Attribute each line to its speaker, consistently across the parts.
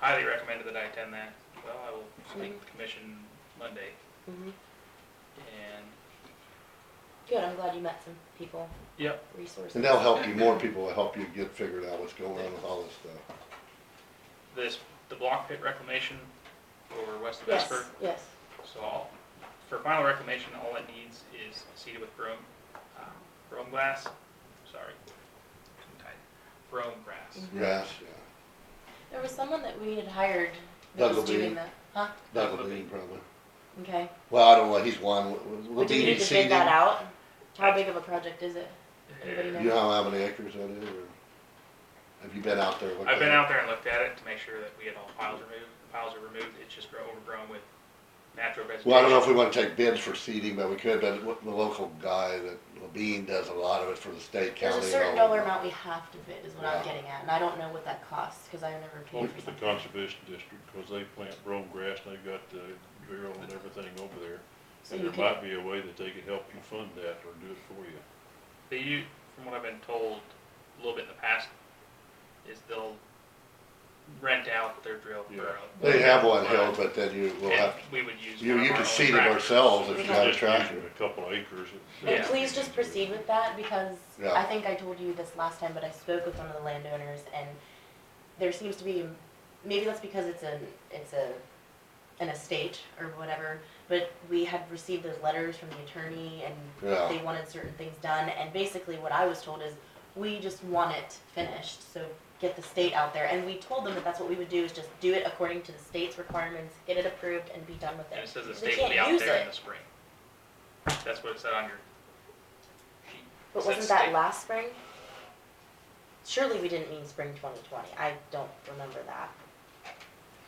Speaker 1: highly recommended that I attend that. Well, I will speak with the commission Monday
Speaker 2: Mhm.
Speaker 1: and,
Speaker 2: Good, I'm glad you met some people,
Speaker 1: yep,
Speaker 2: resources.
Speaker 3: And that'll help you, more people will help you get figured out what's going on with all this stuff.
Speaker 1: this, the block pit reclamation over west of
Speaker 2: Yes,
Speaker 1: Esper.
Speaker 2: yes.
Speaker 1: So I'll, for final reclamation, all it needs is seeded with brome, uh, brome glass, sorry. tongue tied. Brome grass.
Speaker 3: Grass,
Speaker 2: There was someone that we had hired that
Speaker 3: Doug
Speaker 2: was doing
Speaker 3: Levine.
Speaker 2: that, huh?
Speaker 3: yeah, that'll be probably.
Speaker 2: Okay.
Speaker 3: Well, I don't know, he's one, will
Speaker 2: Do we
Speaker 3: be
Speaker 2: need to bid that out? How big of a project is it? Anybody
Speaker 3: You know how many acres that is, or have you been out there? looked
Speaker 1: I've been
Speaker 3: at it?
Speaker 1: out there and looked at it to make sure that we had all piles removed. The piles are removed, it's just grow- overgrown with natural vegetation.
Speaker 3: Well, I don't know if we wanna take bids for seeding, but we could, but what- the local guy that, Levine does a lot of it for the state,
Speaker 2: There's
Speaker 3: county.
Speaker 2: a
Speaker 3: and
Speaker 2: certain
Speaker 3: all.
Speaker 2: dollar amount we have to bid is what I'm
Speaker 3: Yeah.
Speaker 2: getting at, and I don't know what that costs, cause I never paid
Speaker 4: Look
Speaker 2: for
Speaker 4: at the
Speaker 2: something.
Speaker 4: conservation district, cause they plant brome grass, and they've got the drill and everything over there.
Speaker 2: So
Speaker 4: And
Speaker 2: you
Speaker 4: there
Speaker 2: could,
Speaker 4: might be a way that they could help you fund that or do it for you.
Speaker 1: They u from what I've been told, a little bit in the past, is they'll rent out their drill
Speaker 4: Yeah.
Speaker 1: burrow.
Speaker 3: They have one held, but then you will
Speaker 1: And
Speaker 3: have,
Speaker 1: we would use.
Speaker 3: you,
Speaker 1: one of
Speaker 3: you
Speaker 1: our
Speaker 3: can
Speaker 1: own
Speaker 3: seed it
Speaker 1: tractors.
Speaker 3: ourselves if
Speaker 4: Just
Speaker 3: you have a
Speaker 4: give them
Speaker 3: tractor.
Speaker 4: A couple acres. that-
Speaker 2: and
Speaker 1: Yeah.
Speaker 2: please just proceed with that, because
Speaker 3: Yeah.
Speaker 2: I think I told you this last time, but I spoke with one of the landowners, and there seems to be, maybe that's because it's an, it's a, an estate or whatever, but we had received those letters from the attorney, and
Speaker 3: Yeah.
Speaker 2: they wanted certain things done, and basically what I was told is, we just want it finished, so get the state out there, and we told them that that's what we would do, is just do it according to the state's requirements, get it approved, and be done with it.
Speaker 1: And it says the
Speaker 2: They
Speaker 1: state will
Speaker 2: can't
Speaker 1: be out
Speaker 2: use
Speaker 1: there in
Speaker 2: it.
Speaker 1: the spring. That's what it said on your sheet.
Speaker 2: But
Speaker 1: Said
Speaker 2: wasn't
Speaker 1: state.
Speaker 2: that last spring? Surely we didn't mean spring twenty twenty, I don't remember that.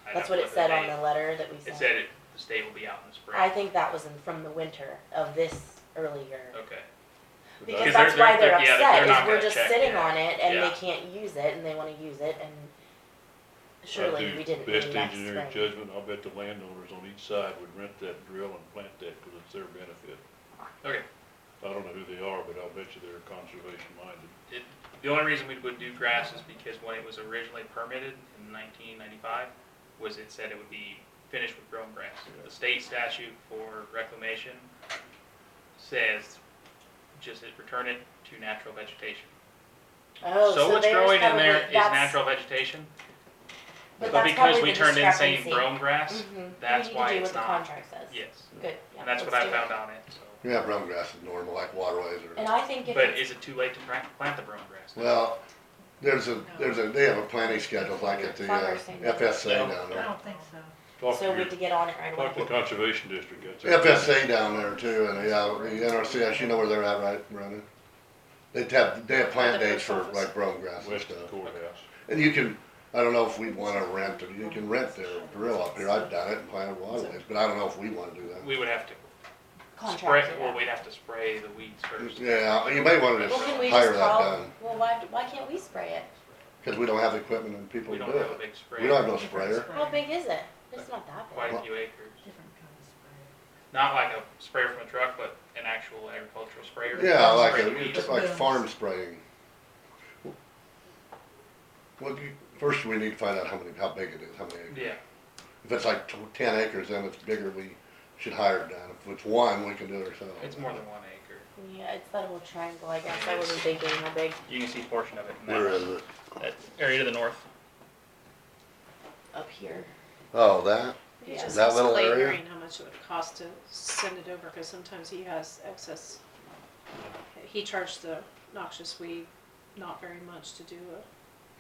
Speaker 1: I
Speaker 2: That's
Speaker 1: don't
Speaker 2: what
Speaker 1: know
Speaker 2: it said on
Speaker 1: date.
Speaker 2: the letter that we
Speaker 1: It
Speaker 2: sent.
Speaker 1: said it, the state will be out in the spring.
Speaker 2: I think that was in, from the winter of this early year.
Speaker 1: Okay.
Speaker 4: But
Speaker 2: Because
Speaker 1: that- they're-
Speaker 2: that's why
Speaker 1: they're-
Speaker 2: they're
Speaker 1: yeah, they're
Speaker 2: upset,
Speaker 1: not
Speaker 2: is
Speaker 1: gonna
Speaker 2: we're just
Speaker 1: check
Speaker 2: sitting
Speaker 1: it.
Speaker 2: on it and they
Speaker 1: Yeah.
Speaker 2: can't use it and they wanna use it and
Speaker 4: I'd
Speaker 2: surely
Speaker 4: do
Speaker 2: we didn't mean
Speaker 4: Best
Speaker 2: next
Speaker 4: engineering
Speaker 2: spring.
Speaker 4: judgment, I'll bet the landowners on each side would rent that drill and plant that, cause it's their benefit.
Speaker 1: Okay.
Speaker 4: I don't know who they are, but I'll bet you they're conservation minded.
Speaker 1: It, the only reason we would do grass is because when it was originally permitted in nineteen ninety-five, was it said it would be finished with grown grass. The state statute for reclamation says, just it- return it to natural vegetation.
Speaker 2: Oh,
Speaker 1: So what's
Speaker 2: there's
Speaker 1: growing in
Speaker 2: probably-
Speaker 1: there is
Speaker 2: that's-
Speaker 1: natural vegetation,
Speaker 2: but
Speaker 1: but
Speaker 2: that's
Speaker 1: because
Speaker 2: probably
Speaker 1: we
Speaker 2: the
Speaker 1: turned in saying
Speaker 2: discrepancy.
Speaker 1: grown grass,
Speaker 2: Mhm. We
Speaker 1: that's
Speaker 2: need to
Speaker 1: why
Speaker 2: do
Speaker 1: it's
Speaker 2: what the
Speaker 1: not-
Speaker 2: contract says.
Speaker 1: yes.
Speaker 2: Good, yeah,
Speaker 1: And that's what
Speaker 2: let's
Speaker 1: I
Speaker 2: do it.
Speaker 1: found on it, so.
Speaker 3: Yeah, brown grass is normal, like waterways
Speaker 2: And
Speaker 3: or,
Speaker 2: I think if
Speaker 1: But
Speaker 2: it's,
Speaker 1: is it too late to plant, plant the brown grass?
Speaker 3: well, there's a, there's a, they have a planting schedule like at the uh,
Speaker 2: Farmers thing.
Speaker 3: FSA down
Speaker 5: I
Speaker 3: there.
Speaker 5: don't think so.
Speaker 4: Talk to
Speaker 2: so we
Speaker 4: your,
Speaker 2: have to get on it right away.
Speaker 4: talk to the conservation district, that's. their benefit.
Speaker 3: FSA down there too, and yeah, the NRCS, you know where they're at, right, Brendan? They have, they have plant
Speaker 5: The
Speaker 3: dates for
Speaker 5: post office.
Speaker 3: like brown grass and
Speaker 4: West of the
Speaker 3: stuff.
Speaker 4: courthouse.
Speaker 3: And you can, I don't know if we'd wanna rent, it. you can rent their grill up here, I've done it and planted waterways, but I don't know if we wanna do that.
Speaker 1: We would have to spray,
Speaker 2: Contract it
Speaker 1: well,
Speaker 2: out.
Speaker 1: we'd have to spray the weeds first.
Speaker 3: Yeah, you may wanna
Speaker 2: Well,
Speaker 3: just
Speaker 2: can we just
Speaker 3: hire that
Speaker 2: call,
Speaker 3: done,
Speaker 2: well, why, why can't we spray it?
Speaker 3: cause we don't have the equipment and people
Speaker 1: We
Speaker 3: to do
Speaker 1: don't have a
Speaker 3: it.
Speaker 1: big sprayer.
Speaker 3: We don't have no sprayer.
Speaker 2: How big is it? It's not that big.
Speaker 1: quite a few acres.
Speaker 5: Different kind of spray.
Speaker 1: Not like a sprayer from a truck, but an actual agricultural sprayer.
Speaker 3: Yeah,
Speaker 1: Spray
Speaker 3: like,
Speaker 1: the
Speaker 3: a-
Speaker 1: weeds.
Speaker 3: it's like farm spraying. Well, you, first we need to find out how many, how big it is, how many acres.
Speaker 1: Yeah,
Speaker 3: If it's like tw- ten acres, then it's bigger, we should hire it down. If it's one, we can do it ourselves.
Speaker 1: it's more than one acre.
Speaker 2: Yeah, it's that whole triangle, I guess. I wasn't thinking how big.
Speaker 1: You can see a portion of it in
Speaker 3: Where is
Speaker 1: that,
Speaker 3: it?
Speaker 1: that area to the north.
Speaker 2: Up here.
Speaker 3: Oh, that?
Speaker 6: You
Speaker 2: Yeah.
Speaker 6: just
Speaker 3: That
Speaker 6: ask
Speaker 3: little
Speaker 6: Clayton
Speaker 3: area?
Speaker 6: Green how much it would cost to send it over, because sometimes he has excess. He charged the noxious weed not very much to do a.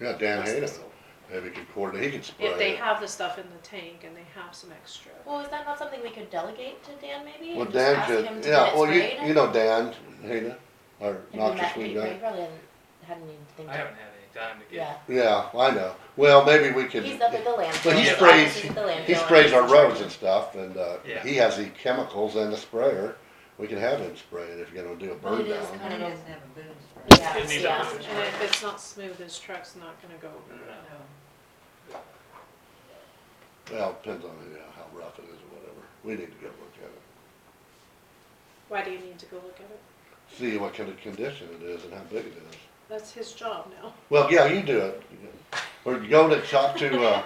Speaker 3: Yeah, Dan Hayden.
Speaker 6: disposal.
Speaker 3: Maybe he could coordinate, he could spray
Speaker 6: If they
Speaker 3: it.
Speaker 6: have the stuff in the tank and they have some extra.
Speaker 2: Well, is that not something we could delegate to Dan maybe?
Speaker 3: Well,
Speaker 2: Just
Speaker 3: Dan
Speaker 2: ask him
Speaker 3: could,
Speaker 2: to
Speaker 3: yeah,
Speaker 2: get it
Speaker 3: well, you,
Speaker 2: sprayed?
Speaker 3: you know Dan Hayden, or
Speaker 2: Have you
Speaker 3: noxious
Speaker 2: met-
Speaker 3: weed
Speaker 2: you
Speaker 3: guy.
Speaker 2: probably haven't had anything.
Speaker 1: I haven't had any time to
Speaker 2: Yeah.
Speaker 1: get,
Speaker 3: Yeah, I know. Well, maybe we could.
Speaker 2: He's up at the landfill.
Speaker 3: But he
Speaker 2: His
Speaker 3: sprays,
Speaker 2: office is at the landfill
Speaker 3: he
Speaker 2: and
Speaker 3: sprays
Speaker 2: he's
Speaker 3: our
Speaker 2: in
Speaker 3: roads
Speaker 2: charge.
Speaker 3: and stuff, and, uh,
Speaker 1: Yeah.
Speaker 3: he has the chemicals and the sprayer. We could have him spray it if you're gonna do a
Speaker 2: Well,
Speaker 3: burn
Speaker 2: it is
Speaker 3: down.
Speaker 2: kind
Speaker 5: And
Speaker 2: of
Speaker 5: he
Speaker 2: a-
Speaker 5: doesn't have a boom spray.
Speaker 2: Yeah,
Speaker 1: It needs a
Speaker 2: yeah.
Speaker 1: roof.
Speaker 6: And if it's not smooth, his truck's not gonna go over
Speaker 1: No.
Speaker 6: that.
Speaker 5: No.
Speaker 3: Well, depends on, you know, how rough it is or whatever. We need to go look at it.
Speaker 6: Why do you need to go look at it?
Speaker 3: See what kind of condition it is and how big it is.
Speaker 6: That's his job now.
Speaker 3: Well, yeah, you do it. Or go to, talk to, uh,